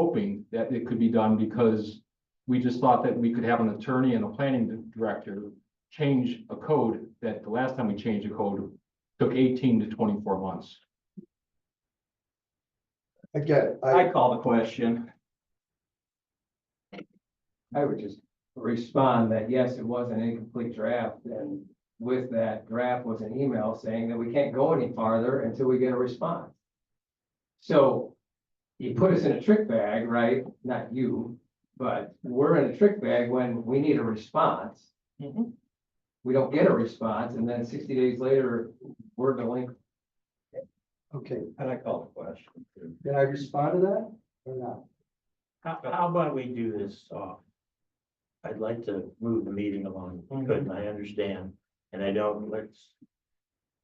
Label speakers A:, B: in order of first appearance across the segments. A: hoping that it could be done because we just thought that we could have an attorney and a planning director change a code that the last time we changed a code took eighteen to twenty-four months.
B: Again, I,
C: I call the question. I would just respond that yes, it was an incomplete draft, and with that draft was an email saying that we can't go any farther until we get a response. So you put us in a trick bag, right? Not you, but we're in a trick bag when we need a response.
A: Mhm.
C: We don't get a response, and then sixty days later, we're delinquent.
B: okay,
D: And I call the question.
B: did I respond to that or not?
D: How, how about we do this, uh, I'd like to move the meeting along, if we could, and I understand, and I don't, let's,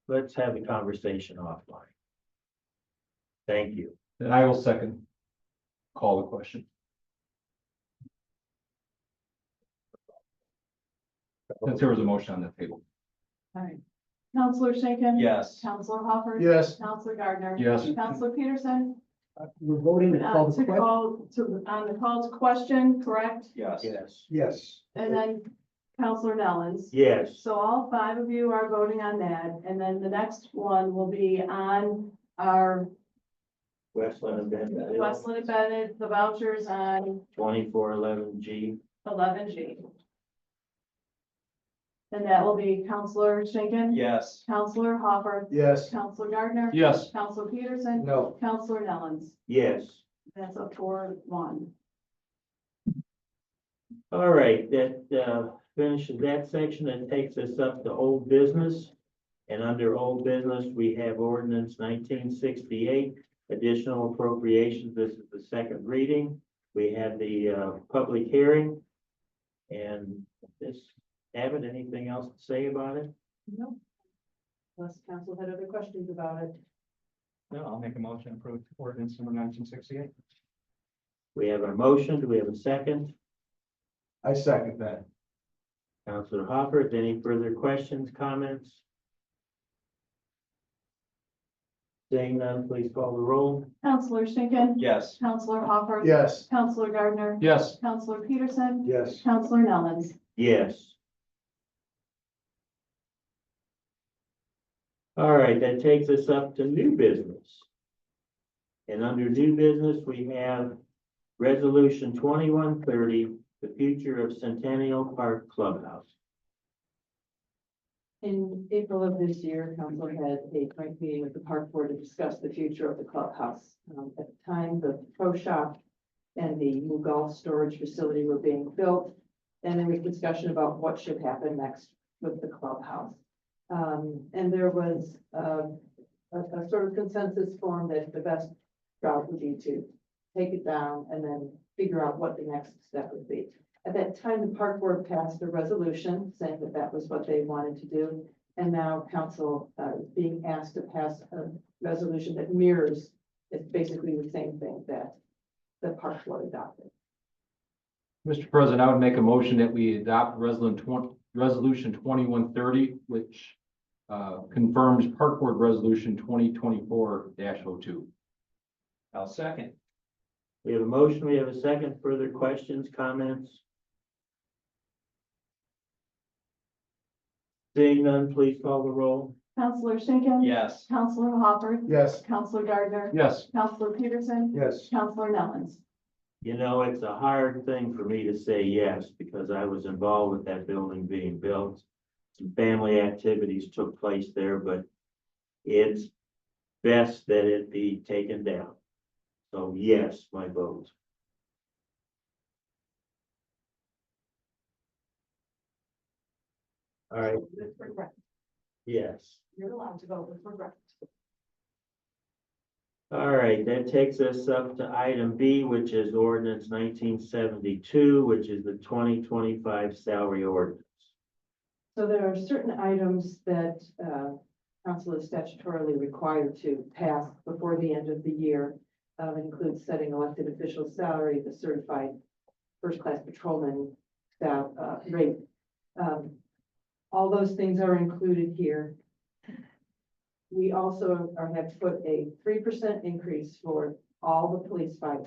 D: let's have a conversation offline. Thank you.
A: Then I will second. Call the question. Since there was a motion on the table.
E: Alright. Counselor Schinkin.
D: Yes.
E: Counselor Hopper.
B: Yes.
E: Counselor Gardner.
A: Yes.
E: Counselor Peterson,
B: We're voting to
E: uh,
B: call the
E: to
B: question?
E: call, to, on the call to question, correct?
D: Yes. Yes.
B: Yes.
E: And then Counselor Nellens.
D: Yes.
E: So all five of you are voting on that, and then the next one will be on our
D: Westland Amendment Bill
E: Westland Bennett, the vouchers on
D: twenty-four eleven G.
E: eleven G. And that will be Counselor Schinkin.
D: Yes.
E: Counselor Hopper.
B: Yes.
E: Counselor Gardner.
A: Yes,
E: Counselor Peterson.
B: No.
E: Counselor Nellens.
D: Yes.
E: That's a four one.
D: All right, that uh, finishes that section and takes us up to old business. And under old business, we have ordinance nineteen sixty-eight, additional appropriations. This is the second reading. We had the uh, public hearing. And this, Abbott, anything else to say about it?
E: No. Unless council had other questions about it.
F: No, I'll make a motion to approve ordinance number nineteen sixty-eight.
D: We have a motion. Do we have a second?
B: I second that.
D: Counselor Hopper, is any further questions, comments? Seeing none, please call the roll.
E: Counselor Schinkin.
F: Yes.
E: Counselor Hopper.
B: Yes.
E: Counselor Gardner.
A: yes,
E: Counselor Peterson.
B: Yes.
E: Counselor Nellens.
D: Yes. All right, that takes us up to new business. And under new business, we have resolution twenty-one thirty, the future of Centennial Park Clubhouse.
G: In April of this year, council had a joint meeting with the park board to discuss the future of the clubhouse. Um, at the time, the pro shop and the new golf storage facility were being built. And there was discussion about what should happen next with the clubhouse. Um, and there was, uh, a, a sort of consensus form that the best route would be to take it down and then figure out what the next step would be. At that time, the park board passed a resolution saying that that was what they wanted to do. And now council uh, is being asked to pass a resolution that mirrors, it's basically the same thing that the park board adopted.
A: Mr. President, I would make a motion that we adopt resolution twenty, resolution twenty-one thirty, which. Uh, confirms park board resolution twenty twenty-four oh 2
C: I'll second.
D: We have a motion, we have a second, further questions, comments? Seeing none, please call the roll.
E: Counselor Schinkin.
C: Yes.
E: Counselor Hopper.
B: Yes.
E: Counselor Gardner.
A: Yes,
E: Counselor Peterson.
B: Yes.
E: Counselor Nellens.
D: You know, it's a hard thing for me to say yes, because I was involved with that building being built. Some family activities took place there, but it's best that it be taken down. So yes, my vote. All right,
E: With regret.
D: yes.
E: You're allowed to vote with regret.
D: All right, that takes us up to item B, which is ordinance nineteen seventy-two, which is the twenty twenty-five salary ordinance.
G: So there are certain items that uh, council is statutorily required to pass before the end of the year. Um, It includes setting elected officials' salary, the certified first-class patrolman sal- uh, rate. Um, All those things are included here. We also are- have put a three percent increase for all the police fire